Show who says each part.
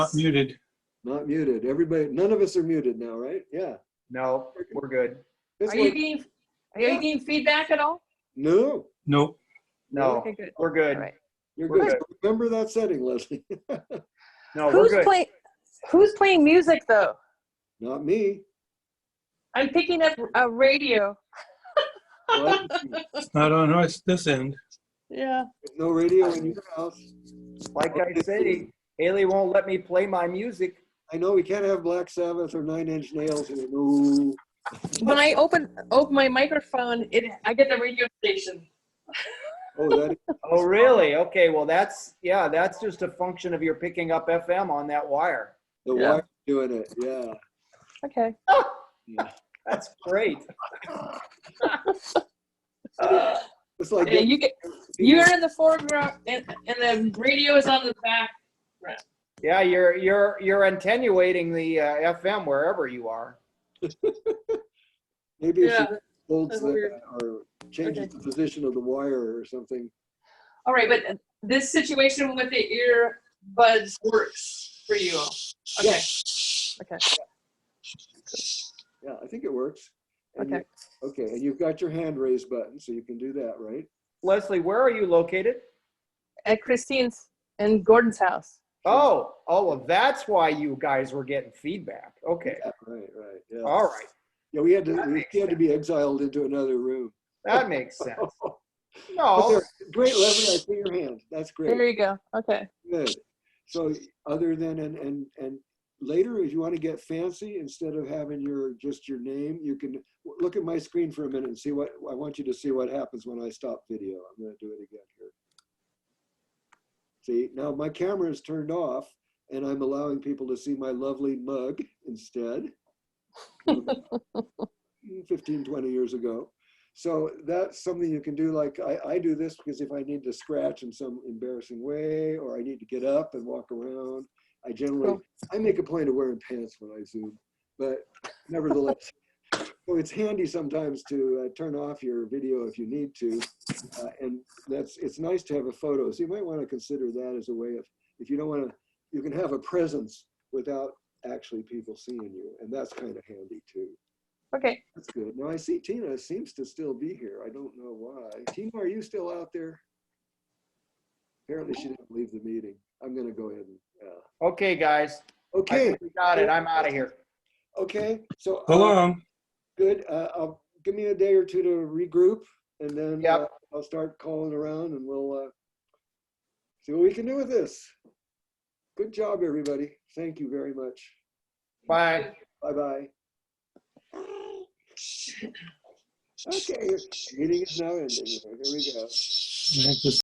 Speaker 1: Not muted.
Speaker 2: Not muted. Everybody, none of us are muted now, right? Yeah.
Speaker 3: No, we're good.
Speaker 2: It's
Speaker 4: Are you
Speaker 2: like,
Speaker 4: getting, are you getting feedback at all?
Speaker 2: no,
Speaker 1: Nope.
Speaker 3: No,
Speaker 4: Okay, good.
Speaker 3: we're
Speaker 4: All
Speaker 3: good.
Speaker 4: right.
Speaker 2: you're
Speaker 3: We're
Speaker 2: good. Remember that setting, Leslie.
Speaker 3: No, we're
Speaker 4: Who's
Speaker 3: good.
Speaker 4: playing, who's playing music though?
Speaker 2: Not me.
Speaker 4: I'm picking up a radio.
Speaker 2: Well,
Speaker 1: It's not on us, this end.
Speaker 4: Yeah.
Speaker 2: there's No radio in your house.
Speaker 3: Like I say, Haley won't let me play my music.
Speaker 2: I know we can't have Black Sabbath or Nine Inch Nails. here. No.
Speaker 4: When I open, open my microphone, it, I get the radio station.
Speaker 2: Oh, that,
Speaker 3: Oh, really? Okay, well, that's, yeah, that's just a function of your picking up FM on that wire.
Speaker 2: the
Speaker 4: Yeah.
Speaker 2: wire doing it. Yeah.
Speaker 4: Okay.
Speaker 3: That's great.
Speaker 2: It's like,
Speaker 4: Yeah, you get, you're in the foreground and, and the radio is on the back.
Speaker 3: Yeah, you're, you're, you're attenuating the uh, FM wherever you are.
Speaker 2: maybe if
Speaker 4: Yeah.
Speaker 2: she holds
Speaker 4: That's
Speaker 2: the,
Speaker 4: weird.
Speaker 2: or changes the position of the wire or something.
Speaker 4: All right, but this situation with the earbuds works for you all. Okay. Okay.
Speaker 2: Yeah, I think it works. And you-
Speaker 4: Okay.
Speaker 2: Okay, and you've got your hand raised button, so you can do that, right?
Speaker 3: Leslie, where are you located?
Speaker 4: At Christine's and Gordon's house.
Speaker 3: Oh, oh, well, that's why you guys were getting feedback. Okay,
Speaker 2: Yeah, Right, right, yeah.
Speaker 3: all right.
Speaker 2: Yeah, we had to,
Speaker 3: That
Speaker 2: we
Speaker 3: makes
Speaker 2: had to be exiled into another room.
Speaker 3: That makes sense. Oh,
Speaker 2: But
Speaker 3: No,
Speaker 2: there- Great, Leslie, I see your hand. That's
Speaker 4: There
Speaker 2: great.
Speaker 4: you go. Okay.
Speaker 2: Good. So other than, and, and, and later, if you want to get fancy, instead of having your, just your name, you can w- look at my screen for a minute and see what, I want you to see what happens when I stop video. I'm going to do it again here. See, now my camera is turned off and I'm allowing people to see my lovely mug instead. 15, 20 years ago. So that's something you can do. Like I, I do this because if I need to scratch in some embarrassing way or I need to get up and walk around, I generally
Speaker 4: Cool.
Speaker 2: I make a point of wearing pants when I zoom, but nevertheless, so it's handy sometimes to uh, turn off your video if you need to, uh, and that's it's nice to have a photo. So you might want to consider that as a way of if you don't want to, you can have a presence without actually people seeing you, and that's kind of handy too.
Speaker 4: Okay.
Speaker 2: That's good. Now I see Tina seems to still be here. I don't know why. Tina, are you still out there? Apparently she didn't leave the meeting. I'm gonna go ahead and, uh,
Speaker 3: okay, guys. I
Speaker 2: okay,
Speaker 3: think we got it. I'm out of here.
Speaker 2: okay, so. uh,
Speaker 1: So long.
Speaker 2: Good, uh, I'll, give me a day or two to regroup and then
Speaker 3: Yep.
Speaker 2: uh, I'll start calling around and we'll, uh, see what we can do with this. Good job, everybody. Thank you very much.
Speaker 3: Bye.
Speaker 2: Bye-bye. Okay, meeting is now ending. Here we go.
Speaker 1: I have to